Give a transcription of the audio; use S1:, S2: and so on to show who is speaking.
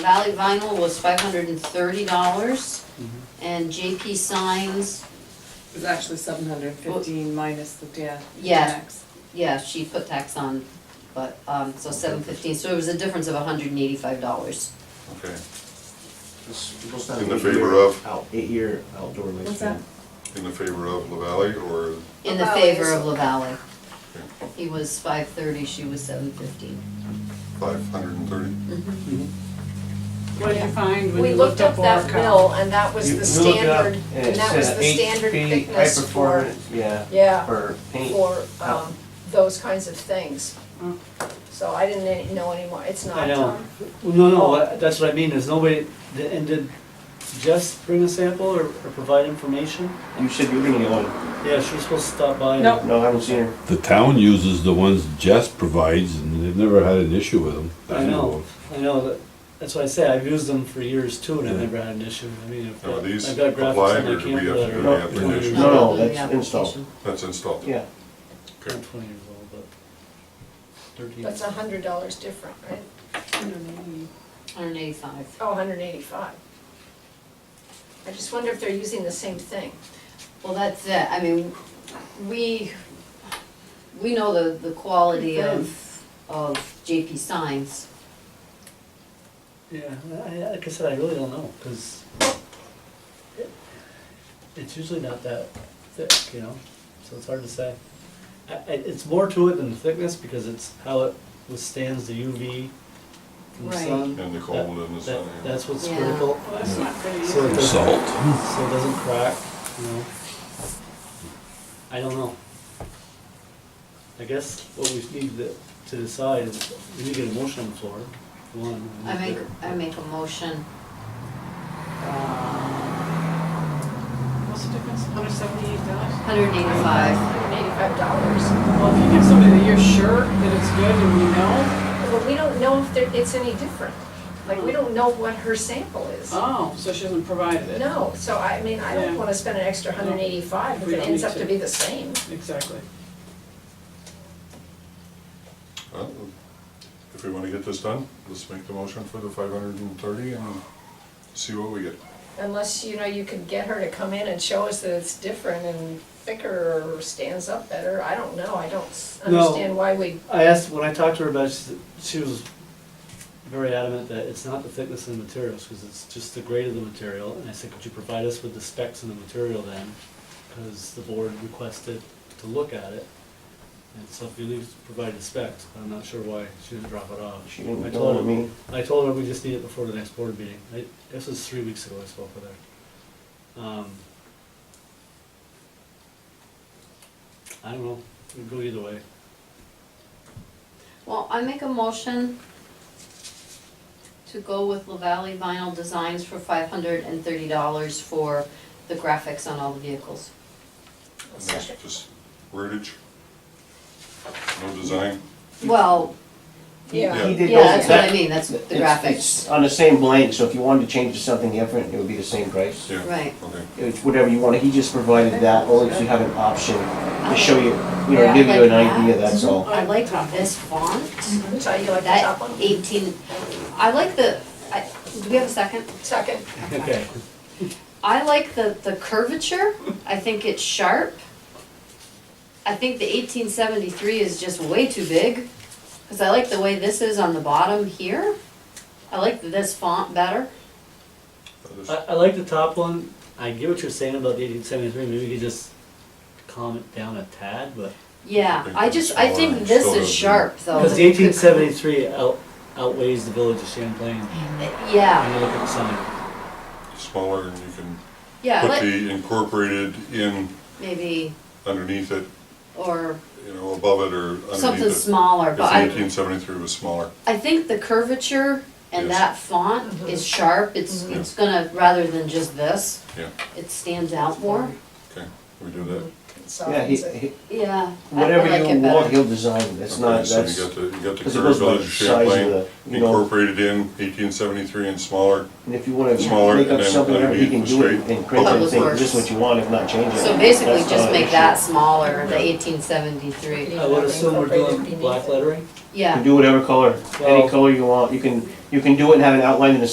S1: Valley Vinyl was five hundred and thirty dollars,
S2: Mm-hmm.
S1: and JP Signs,
S3: It was actually seven hundred fifteen minus the ta-
S1: Yeah.
S3: tax.
S1: yeah, she put tax on, but, um, so seven fifteen, so it was a difference of hundred and eighty-five dollars.
S4: Okay,
S2: In
S4: In the favor of?
S2: Eight-year outdoor lifespan.
S3: What's that?
S4: in the favor of La Valley or,
S1: In the favor of La Valley. He was five thirty, she was seven fifteen.
S4: Five hundred and thirty.
S5: What did you find when
S6: We
S5: you
S6: looked up
S5: Oil
S6: that
S5: Company?
S6: mill and that was
S2: You-
S6: the
S2: we look it up,
S6: standard, and that was the standard
S2: It's uh, HP,
S6: thickness
S2: high
S6: for,
S2: performance, yeah,
S6: yeah,
S2: for Oh. paint.
S6: for, um, those kinds of things.
S5: Mm.
S6: So I didn't any- know anymore, it's
S7: I
S6: not,
S7: know.
S6: um,
S7: Well, No, no, what- that's what I mean, is nobody, th- and did Jess bring a sample or, or provide information?
S2: You said you were gonna get one.
S7: Yeah, she was supposed to stop by. and-
S3: Nope.
S2: No, I haven't seen her.
S8: The town uses the ones Jess provides, and they've never had an issue with them. that
S7: I know, I know, that- that's why I say, I've used them for years too, and I've never had an issue, I mean, I've
S4: Now, are
S7: got,
S4: these
S7: I've got graphics
S4: applied,
S7: on
S4: or
S7: my
S4: do we have
S7: camera
S4: to do
S7: that are.
S4: the
S7: 20 years
S2: application? No,
S7: old.
S2: no,
S1: the
S2: that's installed.
S1: application.
S4: That's installed.
S2: Yeah,
S7: Not Twenty years old, but thirteen.
S6: that's a hundred dollars different, right?
S1: Hundred and eighty-five.
S6: Oh, hundred and eighty-five. I just wonder if they're using the same thing.
S1: Well, that's it, I mean, we, we know the, the quality of, of JP Signs.
S7: Yeah, I, I- like I said, I really don't know, cause it- it's usually not that thick, you know, so it's hard to say. I, I, it's more to it than the thickness, because it's how it withstands the UV from the
S1: Right.
S7: sun.
S4: And the cold and the sun.
S7: That, that's what's
S1: Yeah.
S7: critical,
S5: Well, that's not very
S7: so it
S5: easy.
S7: doesn't, so
S8: Salt.
S7: it doesn't crack, you know. I don't know. I guess what we need to, to decide is, we need to get a motion on the floor, one. we
S1: I
S7: need
S1: make,
S7: to-
S1: I make a motion,
S5: What's the difference, hundred seventy-eight dollars?
S1: hundred and eighty-five.
S6: Hundred and eighty-five dollars.
S5: Well, if you give somebody that you're sure that it's good and you know,
S6: Well, we don't know if they're- it's any different. Like, we don't know what her sample is.
S5: Mm. oh, so she hasn't provided it.
S6: No, so I mean, I don't
S5: Yeah.
S6: wanna spend an extra hundred and eighty-five if
S5: We
S6: it
S5: don't
S6: ends
S5: need
S6: up
S5: to.
S6: to be the same.
S5: Exactly.
S4: Well, If we wanna get this done, let's make the motion for the five hundred and thirty and see what we get.
S6: Unless, you know, you could get her to come in and show us that it's different and thicker or stands up better, I don't know, I don't s-
S7: No.
S6: understand why we,
S7: I asked, when I talked to her about it, she said- she was very adamant that it's not the thickness of the materials, because it's just the grade of the material, and I said, could you provide us with the specs and the material then? Because the board requested to look at it, and so if you leave, provide the specs, I'm not sure why she didn't drop it off.
S2: she didn't
S7: I
S2: tell
S7: told her-
S2: me.
S7: I told her we just need it before the next board meeting, I, this was three weeks ago I spoke with her. Um, I don't know, it could go either way.
S1: Well, I make a motion to go with La Valley Vinyl Designs for five hundred and thirty dollars for the graphics on all the vehicles.
S4: And that's just wordage. No design.
S1: Well,
S6: yeah.
S2: He did
S1: yeah, that's
S2: those,
S1: what I
S2: that,
S1: mean, that's the
S2: it's,
S1: graphics,
S2: it's on the same blank, so if you wanted to change to something different, it would be the same price.
S4: Yeah,
S1: right.
S4: okay.
S2: It's whatever you wanted, he just provided that, only so you have an option to show you, you know,
S1: Yeah,
S2: give you an
S1: like
S2: idea,
S1: that.
S2: that's all.
S1: I like this font,
S6: Which I, you like the top
S1: that
S6: one?
S1: eighteen, I like the, I, do we have a second?
S6: Second,
S7: Okay.
S1: I like the, the curvature, I think it's sharp. I think the eighteen seventy-three is just way too big, cause I like the way this is on the bottom here. I like this font better,
S4: Others?
S7: I, I like the top one. I get what you're saying about the eighteen seventy-three, maybe we could just calm it down a tad, but.
S1: yeah, I just, I think this is sharp though.
S7: Because the eighteen seventy-three out, outweighs the village of Champlain,
S1: Yeah,
S7: when you look at the sign.
S4: Smaller and you can
S1: yeah,
S4: put
S1: like,
S4: the incorporated in
S1: maybe,
S4: underneath it,
S1: or
S4: you know, above it or underneath it.
S1: something smaller, but I.
S4: Because eighteen seventy-three was smaller.
S1: I think the curvature and
S4: Yes.
S1: that font
S7: Mm-hmm.
S1: is sharp, it's,
S4: Mhm.
S1: it's gonna, rather than just this.
S4: Yeah.
S1: It stands out more,
S4: Okay, we do that.
S2: Yeah, he,
S6: consolidates it.
S2: he-
S1: yeah. Mm-hmm. I- I
S2: whatever
S1: like
S2: you
S1: it better.
S2: want, he'll design, that's
S4: Okay,
S2: not,
S4: So you
S2: that's,
S4: got the, you got the
S2: because it goes
S4: curved
S2: by
S4: village
S2: the
S4: of
S2: size of
S4: Champlain
S2: the, you know,
S4: incorporated in eighteen seventy-three and smaller.
S2: and if you wanna
S4: smaller
S2: make
S4: and
S2: up
S4: then
S2: something, whatever, he can
S4: underneath
S2: do
S4: the
S2: it
S4: straight
S2: and create
S1: Public
S2: anything,
S1: Works.
S2: just what you want, if not change it.
S1: So basically,
S2: That's
S1: just
S2: not an
S1: make
S2: issue.
S1: that smaller, the
S4: Yeah.
S1: eighteen seventy-three,
S6: Yeah.
S7: I would assume we're doing
S6: Incorporated
S7: black
S6: beneath it.
S7: lettering.
S2: You
S1: yeah.
S2: can do whatever color,
S7: Well-
S2: any color you want, you can, you can do it and have an outline in the